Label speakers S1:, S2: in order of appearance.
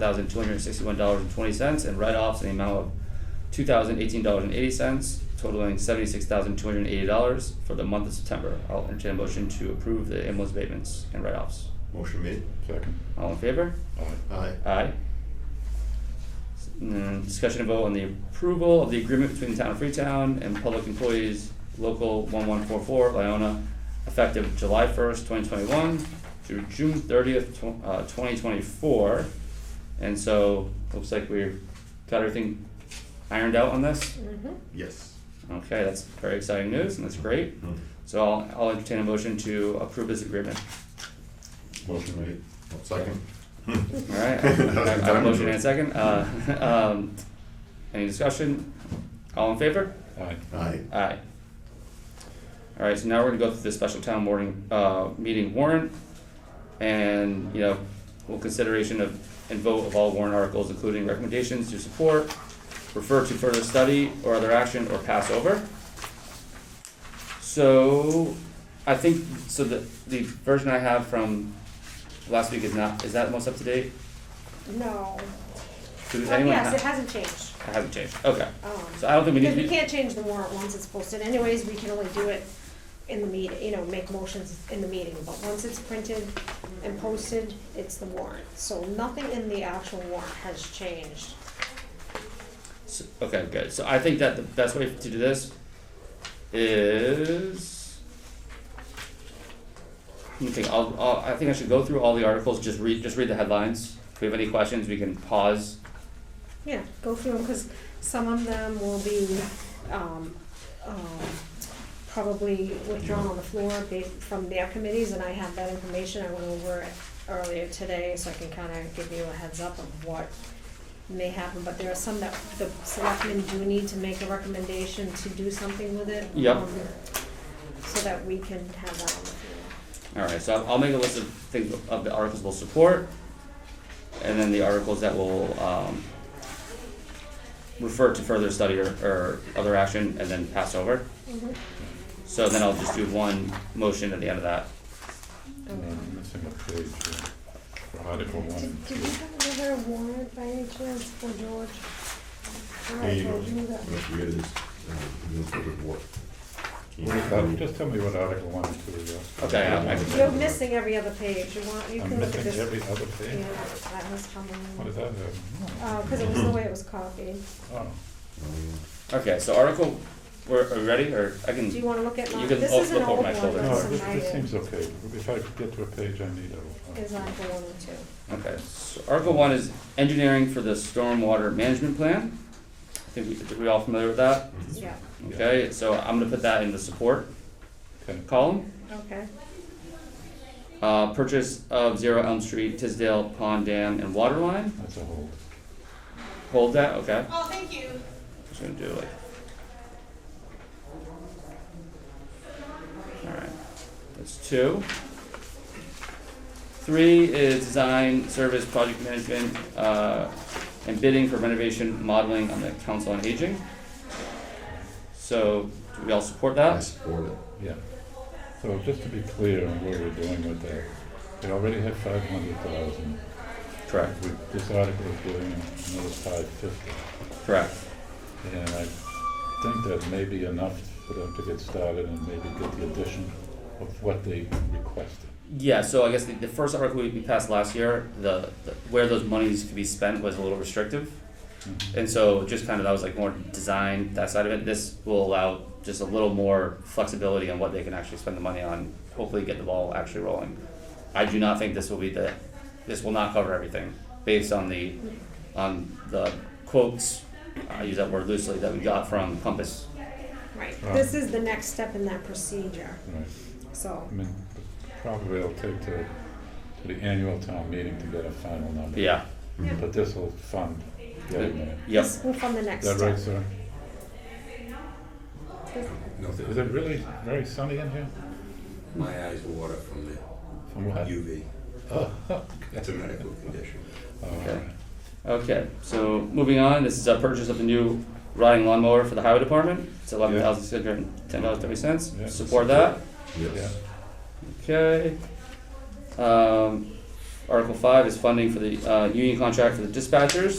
S1: thousand two hundred sixty-one dollars and twenty cents, and write-offs in the amount of two thousand eighteen dollars and eighty cents, totaling seventy-six thousand two hundred eighty dollars for the month of September. I'll entertain a motion to approve the ambulance abatements and write-offs.
S2: Motion made.
S3: Second.
S1: All in favor?
S3: Aye.
S2: Aye.
S1: Aye. And then discussion and vote on the approval of the agreement between the town of Freetown and public employees, local one one four four, Leona, effective July first, twenty twenty-one through June thirtieth, tw- uh, twenty twenty-four. And so, looks like we've got everything ironed out on this.
S2: Yes.
S1: Okay, that's very exciting news and that's great.
S3: Hmm.
S1: So I'll, I'll entertain a motion to approve this agreement.
S3: Motion made. Hmm.
S2: Second.
S1: Alright, I
S2: That was
S1: I
S2: the
S1: have a
S2: time.
S1: motion and a second, uh, um, any discussion, all in favor?
S3: Aye.
S2: Aye.
S1: Aye. Alright, so now we're gonna go through the special town morning, uh, meeting warrant, and, you know, full consideration of, and vote of all warrant articles, including recommendations to support, refer to further study or other action, or pass over. So, I think, so the, the version I have from last week is not, is that most up to date?
S4: No.
S1: Does
S4: Well,
S1: anyone
S4: yes,
S1: have?
S4: it hasn't changed.
S1: It hasn't changed, okay.
S4: Um,
S1: So I don't think we
S4: Because
S1: need
S4: we
S1: to,
S4: can't change the warrant once it's posted anyways, we can only do it in the meeting, you know, make motions in the meeting. But once it's printed and posted, it's the warrant. So nothing in the actual warrant has changed.
S1: s- okay, good. So I think that the best way to do this is. Let me think, I'll, I'll, I think I should go through all the articles, just read, just read the headlines. If we have any questions, we can pause.
S4: Yeah, go through them, because some of them will be, um, um, probably withdrawn on the floor ba- from their committees, and I have that information, I went over it earlier today, so I can kinda give you a heads up of what may happen, but there are some that the selectmen do need to make a recommendation to do something with it.
S1: Yep.
S4: um, So that we can have that on the floor.
S1: Alright, so I'll- I'll make a list of things, of the articles we'll support, and then the articles that will, um, refer to further study or, or other action, and then pass over. So then I'll just do one motion at the end of that.
S3: Uh, I'm missing a page here. For Article one and
S4: Did, did
S3: two.
S4: we have another warrant by any chance for George? All
S2: Hey,
S4: right,
S2: you know,
S4: George, you got-
S2: let's forget this, uh, you know, for the board.
S3: What is that? uh, Just tell me what Article one and two are.
S1: Okay, I- I-
S4: You're missing every other page, you want, you
S3: I'm
S4: can look at
S3: missing
S4: this.
S3: every other page.
S4: Yeah, that was probably,
S3: What is that? uh,
S4: uh, cause it was the way it was copied.
S3: Oh,
S1: Okay, so article, we're, are we ready, or I can,
S4: Do you wanna look at
S1: You
S4: mine?
S1: can
S4: This
S1: all
S4: is an
S1: look over
S4: old
S1: my
S4: one,
S1: shoulder.
S3: no,
S4: it's
S3: Oh, this,
S4: an
S3: this
S4: item,
S3: seems okay. If I get to a page I need, I'll.
S4: is Article one and two.
S1: okay, so article one is engineering for the stormwater management plan. I think we, are we all familiar with that?
S4: Yeah,
S1: Okay, so I'm gonna put that in the support
S3: Okay.
S1: column.
S4: okay,
S1: Uh, purchase of Zero Elm Street, Tisdale Pond Dam and water line,
S3: That's a hold.
S1: hold that, okay,
S5: Oh, thank you.
S1: just gonna do like. Alright, that's two. Three is design, service, project management, uh, and bidding for renovation modeling on the council on aging. So, do we all support
S2: I
S1: that?
S2: support it.
S3: Yeah. So just to be clear on what we're doing with that, we already have five hundred thousand.
S1: Correct.
S3: With this article is doing another five fifty.
S1: Correct.
S3: And I think that may be enough for them to get started and maybe get the addition of what they requested.
S1: Yeah, so I guess the, the first article we we passed last year, the, the where those monies could be spent was a little restrictive.
S3: Mm-hmm.
S1: And so just kind of that was like more design, that side of it. This will allow just a little more flexibility on what they can actually spend the money on, hopefully get the ball actually rolling. I do not think this will be the, this will not cover everything based on the, on the quotes, I use that word loosely, that we got from Compass.
S4: right,
S3: Right.
S4: this is the next step in that procedure,
S3: Right.
S4: so,
S3: I mean, probably it'll take to, to the annual town meeting to get a final number.
S1: Yeah,
S4: yeah,
S3: But this will fund getting there.
S1: yep.
S4: this will fund the next
S3: Is that
S4: step.
S3: right, sir? Is it really very sunny in here?
S6: My eyes water from the
S3: From what?
S6: UV.
S3: Oh,
S6: It's a medical condition.
S3: all
S1: Okay.
S3: right.
S1: Okay, so moving on, this is a purchase of the new riding lawnmower for the highway department. It's eleven thousand six hundred and ten dollars thirty cents.
S3: Yeah.
S1: Support that.
S2: Yes.
S3: Yeah.
S1: Okay. Um, Article five is funding for the, uh, union contract for the dispatchers.